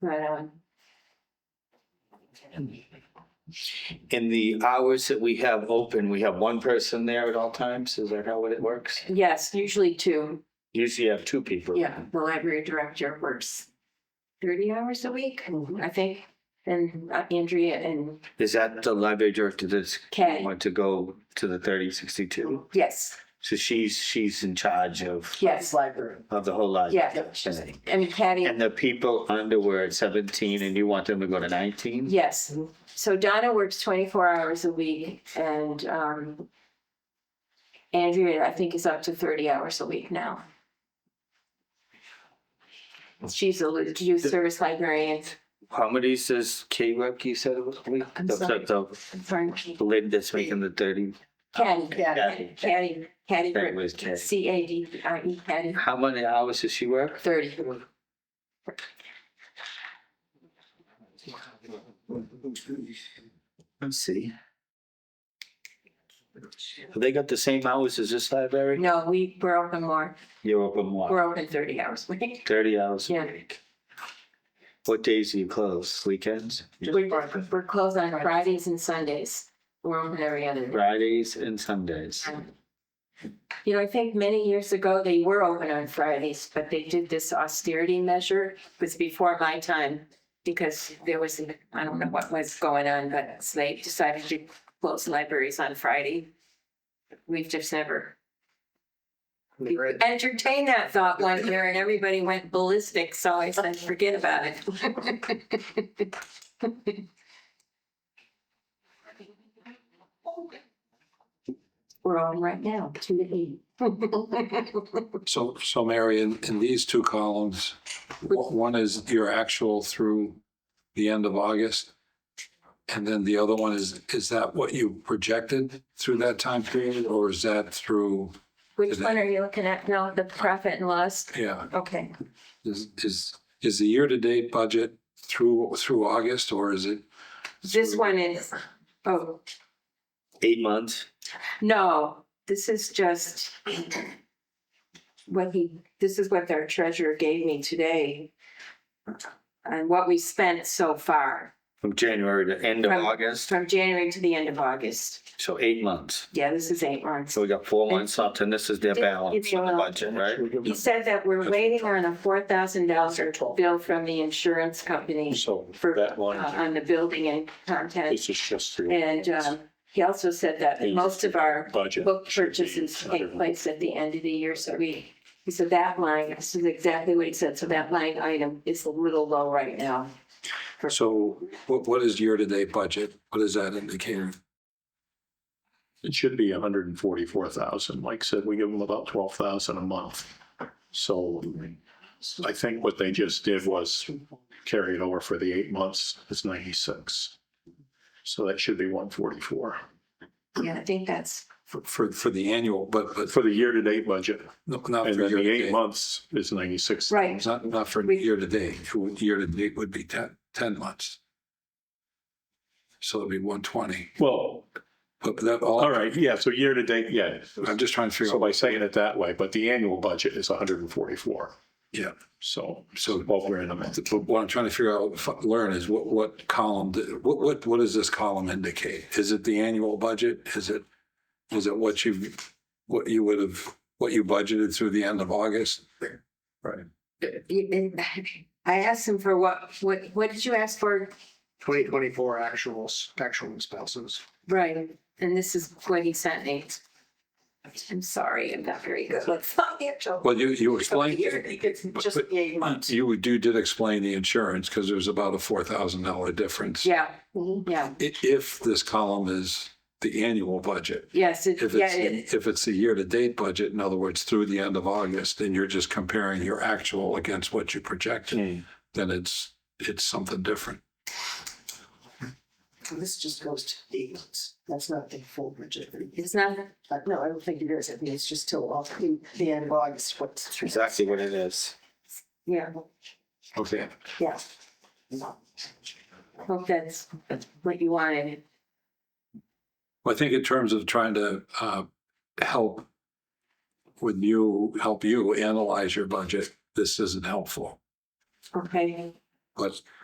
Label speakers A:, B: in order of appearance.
A: Right on.
B: In the hours that we have open, we have one person there at all times? Is that how it works?
A: Yes, usually two.
B: Usually you have two people.
A: Yeah, the library director works thirty hours a week, I think. And uh, Andrea and
B: Is that the library director that's
A: Kay.
B: want to go to the thirty sixty-two?
A: Yes,
B: So she's, she's in charge of,
A: yes,
C: Library.
B: of the whole library?
A: yeah. she's- And Patty,
B: And the people under were at seventeen and you want them to go to nineteen?
A: yes.
C: Mhm.
A: So Donna works twenty-four hours a week and um Andrea, I think, is up to thirty hours a week now. She's a lu- youth service librarian.
B: How many does K Rec you said it was?
A: I'm
B: The-
A: sorry.
B: The
A: Sorry.
B: the lady that's making the thirty?
A: Caddy,
B: Caddy.
A: caddy, caddy,
B: That was K.
A: C A D I E, caddy,
B: How many hours does she work?
A: thirty.
B: Let's see. Have they got the same hours as this library?
A: No, we, we're open more,
B: You're open what?
A: we're open thirty hours a week.
B: Thirty hours a
A: Yeah.
B: week. What days do you close? Weekends?
A: We're, we're closed on Fridays and Sundays. We're open every other day.
B: Fridays and Sundays.
A: You know, I think many years ago, they were open on Fridays, but they did this austerity measure, It was before my time. Because there was, an- I don't know what was going on, but so they decided to close libraries on Friday. We've just never entertained that thought one year and everybody went ballistic, so I said, forget about it. We're on right now, two to eight.
D: So, so Mary, in, in these two columns, w- one is your actual through the end of August. And then the other one is, is that what you projected through that time period or is that through,
A: Which one are you looking at now, the profit and loss?
D: yeah,
A: Okay,
D: is, is, is the year-to-date budget through, through August or is it?
A: this one is, oh,
B: Eight months?
A: no, this is just what he, this is what our treasurer gave me today. And what we spent so far,
B: From January to end of
A: From-
B: August?
A: from January to the end of August.
B: So eight months.
A: Yeah, this is eight months.
B: So we got four months left and this is their
A: Did-
B: balance
A: did you,
B: on the
A: uh,
B: budget, right?
A: He said that we're waiting on a four thousand dollar bill from the insurance company
E: So
A: for,
E: that
A: uh,
E: one,
A: on the building and content.
E: this is just through.
A: And um, he also said that most of our
E: Budget.
A: book purchases take place at the end of the year, so we, he said that line, this is exactly what he said, so that line item is a little low right now.
D: So what, what is year-to-date budget? What is that indicating?
E: It should be hundred and forty-four thousand. Like I said, we give them about twelve thousand a month. So I think what they just did was carry it over for the eight months. It's ninety-six. So that should be one forty-four
A: Yeah, I think that's,
D: For, for, for the annual, but, but
E: for the year-to-date budget.
D: no- not
E: And
D: for
E: then the eight
D: year-to-date.
E: months is ninety-six.
A: right,
D: Not, not for
A: We-
D: year-to-date, year-to-date would be ten, ten months. So it'd be one twenty,
E: Well,
D: but that all.
E: all right, yeah, so year-to-date, yeah.
D: I'm just trying to figure
E: So
D: out,
E: by saying it that way, but the annual budget is hundred and forty-four.
D: Yeah.
E: So, so
D: So-
E: both we're in a minute.
D: but what I'm trying to figure out, f- learn is what, what column, d- what, what, what does this column indicate? Is it the annual budget? Is it, is it what you, what you would have, what you budgeted through the end of August? Right.
A: I asked him for what, what, what did you ask for?
F: Twenty twenty-four actuals, actual spouses.
A: Right, and this is what he sent me. I'm sorry, I'm not very good with financial.
D: Well, you, you explained.
A: Here, It's just
D: but-
A: the eight months.
D: You would- you did explain the insurance because there's about a four thousand dollar difference.
A: Yeah, yeah,
D: i- if this column is the annual budget.
A: yes, it,
D: If
A: yeah, it,
D: it's, if it's the year-to-date budget, in other words, through the end of August, and you're just comparing your actual against what you projected, then it's, it's something different.
C: So This just goes to eight months. That's not the full budget.
A: it's not,
C: Uh, No, I don't think it is. I think it's just till off the the end of August, what's.
B: Exactly what it is.
A: yeah,
D: Okay.
C: Yeah.
A: hope that's what you wanted.
D: Well, I think in terms of trying to uh, help with you, help you analyze your budget, this isn't helpful.
A: Okay,
D: but